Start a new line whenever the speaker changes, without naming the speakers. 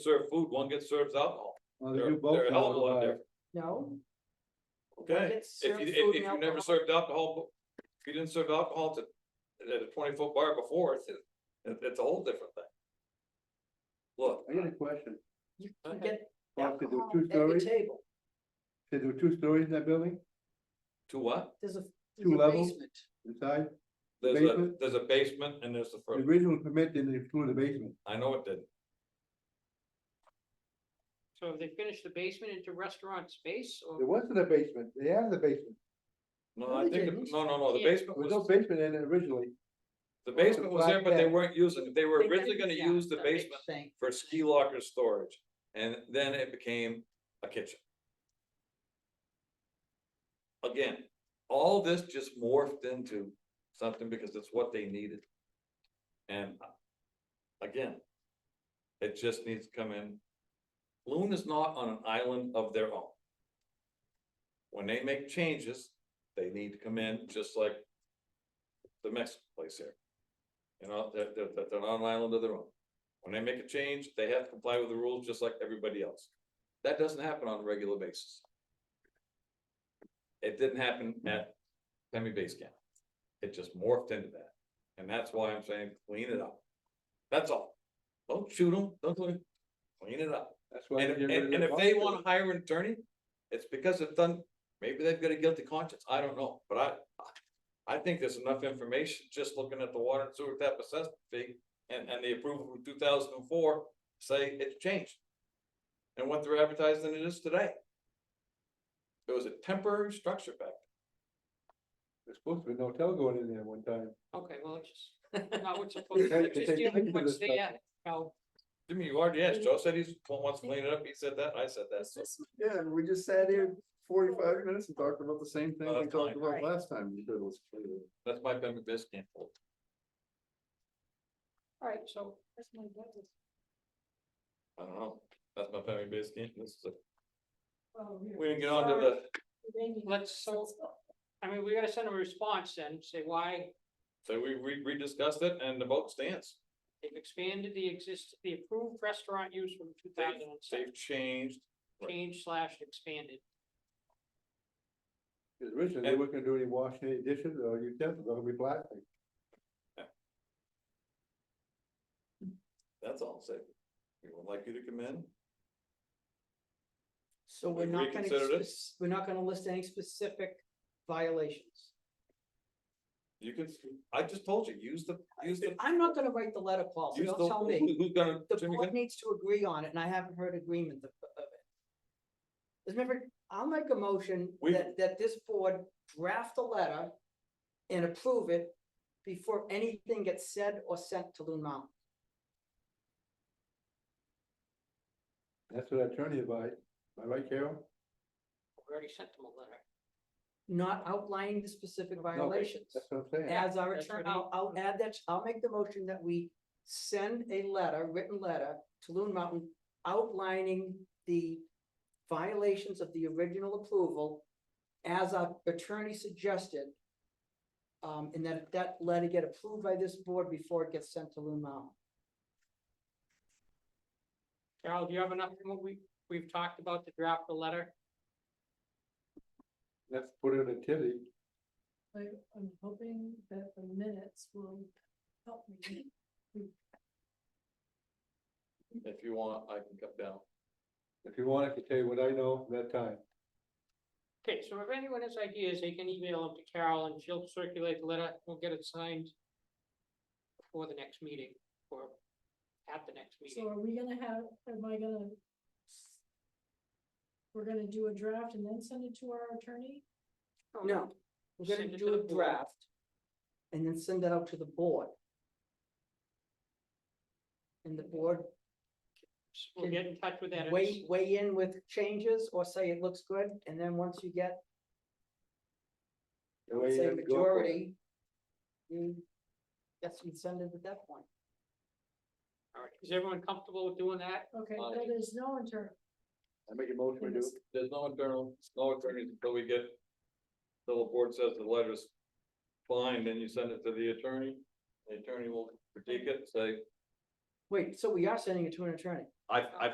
serve food, one gets serves alcohol.
Well, they
They're,
do both
they're a hell of a lot
now, uh,
different.
No. One
Okay,
gets
if
served
you, if,
food
if
and
you never
alcohol.
served alcohol, if you didn't serve alcohol to, at a twenty foot bar before, it's, it- it's a whole different thing. Look,
I got a question.
You
Okay.
can get
Bob, could do
alcohol
two
at the
stories,
table.
They do two stories in that building
to what?
There's a.
Two
there's a
levels?
basement.
inside?
There's a,
Basement?
there's a basement and there's the
The
first,
original permit didn't include a basement.
I know it did.
So have they finished the basement into restaurant space
There
or?
wasn't a basement. They added a basement.
No,
No,
I
they
think,
didn't.
the- no, no, no, the
Yeah.
There
basement
was no
was,
basement in it originally.
the basement was there, but they weren't using it. They were
They
originally
never
gonna
found
use the
a
basement
thing.
for ski locker storage, and then it became a kitchen. Again, all this just morphed into something because it's what they needed. And uh, again, it just needs to come in. Loon is not on an island of their own. When they make changes, they need to come in just like the Mexican place here. You know, they're, they're, they're- they're on an island of their own. When they make a change, they have to comply with the rules just like everybody else. That doesn't happen on a regular basis. It didn't happen at Pemmy Base Camp. It just morphed into that. And that's why I'm saying clean it up. That's all. Don't shoot them, don't do it. Clean it up.
That's why.
And,
they
and,
get rid of
and
the
if they
box.
wanna hire an attorney, it's because it's done, maybe they've got a guilty conscience, I don't know, but I. I think there's enough information, just looking at the water and sewer tap assessment fee and, and the approval from two thousand and four, say it's changed. And what they're advertising it is today. It was a temporary structure back,
There's supposed to be no hotel going in there one time.
Okay, well, it's just not what's supposed
They-
to,
they
just
take
dealing
pictures
with
of
what's
this stuff.
there. Now,
there. Jimmy, you already asked, Joe said he's, wants to clean it up, he said that, I said that, so.
Yeah, and we just sat here forty-five minutes and talked about the same thing
Oh, that's fine.
Right.
last time.
That's my family business camp.
all right, so
I don't know, that's my family business camp, this is a, we didn't get onto the.
let's, so, I mean, we gotta send a response then, say why
So we, we, we discussed it and the vote stands.
they've expanded the exist, the approved restaurant use from two thousand and seven,
They've changed. right.
changed slash expanded.
Originally, they weren't gonna do any washing, any dishes or utensils, they're gonna be plastic.
That's all I'm saying. We would like you to come in.
So we're
We've
not gonna,
reconsidered it.
spec- we're not gonna list any specific violations.
You could, I just told you, use the, use the.
I'm not gonna write the letter, Paul, so
use
don't
the-
tell
who-
me.
Who's gonna,
The
Jimmy,
board needs to agree on it, and I haven't heard agreement of, of it. There's never, I'll make a motion
We-
that, that this board draft a letter and approve it before anything gets said or sent to Loon Mountain.
That's what attorney advised. Am I right, Carol?
We already sent them a letter.
not outlining the specific
No, but
violations.
That's what I'm saying.
As our
That's
attorney,
what he-
I'll, I'll add that, I'll make the motion that we send a letter, written letter to Loon Mountain outlining the violations of the original approval as our attorney suggested. Um, and that that letter get approved by this board before it gets sent to Loon Mountain.
Carol, do you have enough, from what we, we've talked about to draft the letter?
That's put it in a tizzy.
I, I'm hoping that the minutes will help me.
if you want, I can come down.
If you want, I can tell you what I know from that time.
Okay, so if anyone has ideas, they can email them to Carol and she'll circulate the letter, we'll get it signed before the next meeting, or at the next
So
meeting.
are we gonna have, am I gonna? We're gonna do a draft and then send it to our attorney?
No, we're
Send
gonna
it to
do
the
a
board.
draft. And then send that out to the board. And the board
We'll get in touch with editors.
weigh, weigh in with changes or say it looks good, and then once you get,
The way you
say
go for it.
majority. You, that's, you send it at that point.
All right, is everyone comfortable with doing that?
Okay,
Aye.
that is no attorney.
I make a motion to do. it.
There's no internal, no attorneys until we get. Till the board says the letter's fine, then you send it to the attorney. The attorney will critique it, say,
Wait, so we are sending it to an attorney?
I, I